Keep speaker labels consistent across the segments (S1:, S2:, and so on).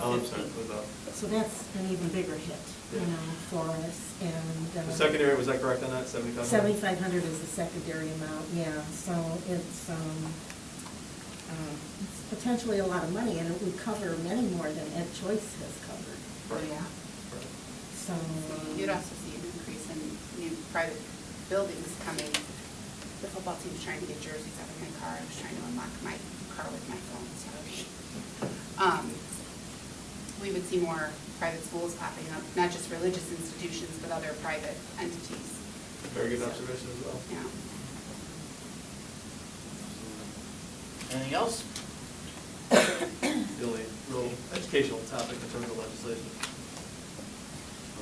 S1: Oh, I'm sorry, what about?
S2: So that's an even bigger hit, you know, for us, and. uh,
S1: The secondary, was that correct on that, seventy-five?
S2: Seventy-five hundred is the secondary amount, yeah, so it's, um, uh, it's potentially a lot of money, and it would cover many more than Ed Choice has covered.
S1: Right.
S2: Yeah.
S1: Right.
S2: So. um,
S3: You'd also see an increase in new private buildings coming. The football team's trying to get jerseys out of my car, I was trying to unlock my car with my phone, sorry. Um, We would see more private schools popping up, not just religious institutions, but other private entities.
S1: Very good observation as well.
S3: Yeah.
S4: Anything else?
S1: The only real educational topic in terms of legislation.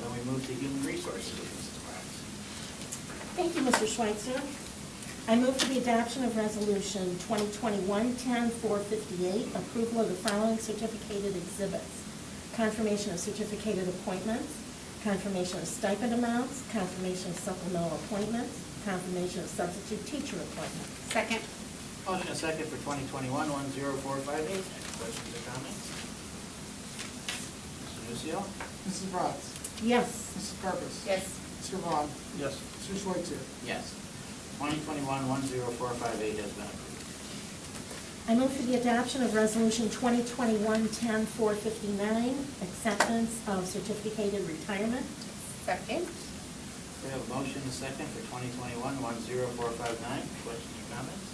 S4: Then we move to human resources, Mrs. Bratz.
S2: Thank you, Mr. Schweitzer. I move for the adoption of Resolution 2021-10-458, approval of the following certificated exhibits: confirmation of certificated appointments, confirmation of stipend amounts, confirmation of supplemental appointments, confirmation of substitute teacher appointments.
S3: Second,
S4: Motion and second for 2021-10458. Any questions or comments? Mr. Nucio?
S5: Mrs. Bratz?
S2: Yes.
S5: Mrs. Carpus?
S3: yes,
S5: Mr. Vaughn?
S1: Yes.
S5: Mr. Schweitzer?
S4: Yes. 2021-10458 has been approved.
S2: I move for the adoption of Resolution 2021-10-459, acceptance of certificated retirement.
S3: second,
S4: We have a motion and second for 2021-10459. Questions or comments?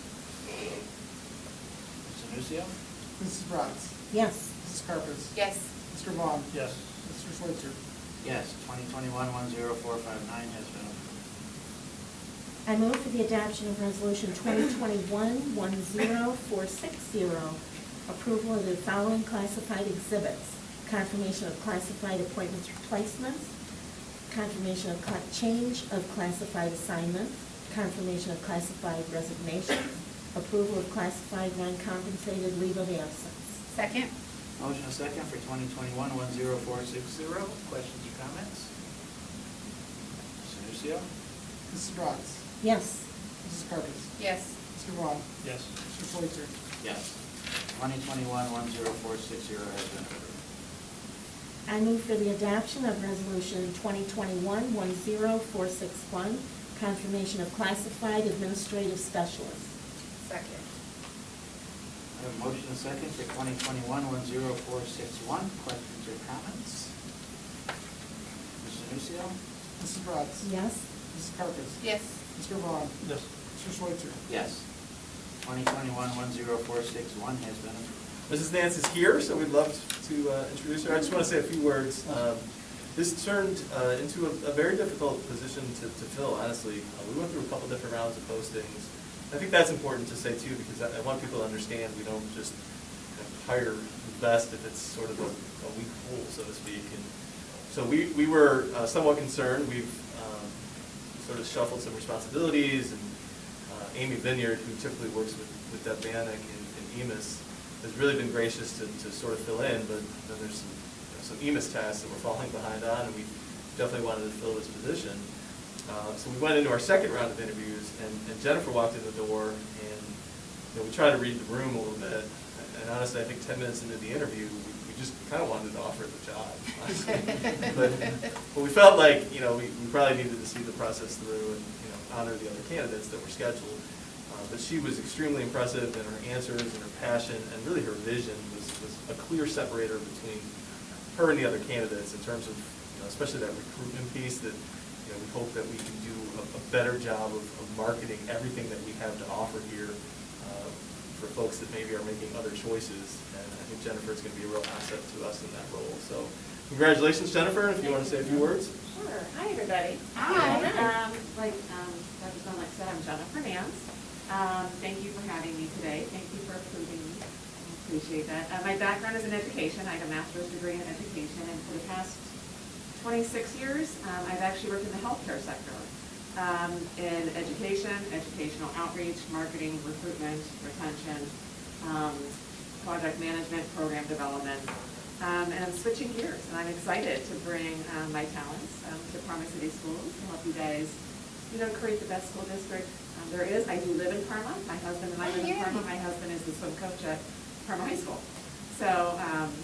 S4: Mr. Nucio?
S5: Mrs. Bratz?
S2: Yes.
S5: Mrs. Carpus?
S3: yes,
S5: Mr. Vaughn?
S1: Yes.
S5: Mr. Schweitzer?
S4: Yes, 2021-10459 has been approved.
S2: I move for the adoption of Resolution 2021-10460, approval of the following classified exhibits: confirmation of classified appointments replacements, confirmation of cla- change of classified assignments, confirmation of classified resignations, approval of classified non-compensated leave of absence.
S3: second,
S4: Motion and second for 2021-10460. Questions or comments? Mr. Nucio?
S5: Mrs. Bratz?
S2: Yes.
S5: Mrs. Carpus?
S3: yes,
S5: Mr. Vaughn?
S1: Yes.
S5: Mr. Schweitzer?
S4: Yes. 2021-10460 has been approved.
S2: I move for the adoption of Resolution 2021-10461, confirmation of classified administrative specialists.
S3: second,
S4: I have a motion and second for 2021-10461. Questions or comments? Mr. Nucio?
S5: Mrs. Bratz?
S2: Yes.
S5: Mrs. Carpus?
S3: yes,
S5: Mr. Vaughn?
S1: Yes.
S5: Mr. Schweitzer?
S4: Yes. 2021-10461 has been approved.
S1: Mrs. Nance is here, so we'd love to uh, introduce her. I just want to say a few words. Um, This turned uh, into a a very difficult position to to fill, honestly. Uh, We went through a couple different rounds of postings. I think that's important to say too, because I I want people to understand, we don't just kind of hire the best if it's sort of a a weak pool, so to speak. And So we we were uh, somewhat concerned. We've um, sort of shuffled some responsibilities and uh, Amy Vineyard, who typically works with, with Deb Bannick and and EMIS, has really been gracious to, to sort of fill in, but then there's some, you know, some EMIS tasks that we're falling behind on, and we definitely wanted to fill this position. Uh, So we went into our second round of interviews, and and Jennifer walked in the door, and, you know, we tried to read the room a little bit, and honestly, I think ten minutes into the interview, we we just kind of wanted to offer the job. honestly. But but we felt like, you know, we we probably needed to see the process through and, you know, honor the other candidates that were scheduled. Uh, But she was extremely impressive in her answers and her passion, and really her vision was was a clear separator between her and the other candidates in terms of, you know, especially that recruitment piece that, you know, we hope that we can do a a better job of of marketing everything that we have to offer here uh, for folks that maybe are making other choices. And I think Jennifer's going to be a real asset to us in that role. So congratulations, Jennifer, if you want to say a few words.
S6: Sure. Hi, everybody.
S3: Ah, Hi.
S6: Um, Like, um, Dr. Dunlap said, I'm Jennifer Nance. Um, Thank you for having me today. Thank you for approving me. I Appreciate that. Uh, My background is in education. I have a master's degree in education, and for the past 26 years, um, I've actually worked in the healthcare sector, um, in education, educational outreach, marketing, recruitment, retention, um, project management, program development. Um, And I'm switching gears, and I'm excited to bring um, my talents um, to Parma City Schools to help you guys, you know, create the best school district um, there is. I do live in Parma. My husband and I
S3: Oh,
S6: live in
S3: yeah.
S6: Parma. My husband is the swim coach at Parma High School. So um,